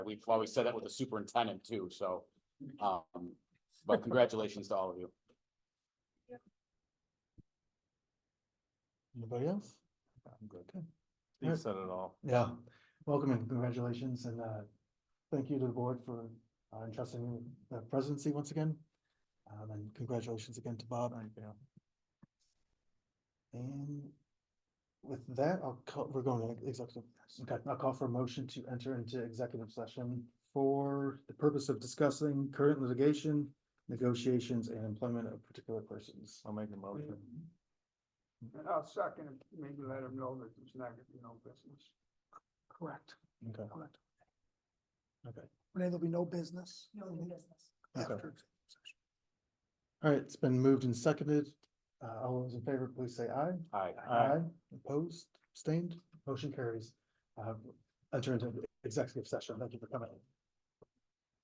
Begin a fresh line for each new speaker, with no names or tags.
We've always said that with the superintendent too, so, um, but congratulations to all of you.
Anybody else?
I'm good.
Okay.
You
Alright.
said it all.
Yeah, welcome and congratulations and uh, thank you to the board for uh, entrusting me with the presidency once again. Um, and congratulations again to Bob and Gail. And with that, I'll call, we're going to executive. Okay, I'll call for a motion to enter into executive session for the purpose of discussing current litigation, negotiations and employment of particular persons.
I'll make a motion.
And I'll second, it, maybe let them know that there's not gonna be no business. Correct,
Okay,
correct.
Okay.
Renee, there'll be no business.
No new business.
okay. All right, it's been moved and seconded. Uh, all those in favor, please say aye.
Hi.
Aye. Opposed, abstained, motion carries. Uh, enter into executive session. Thank you for coming.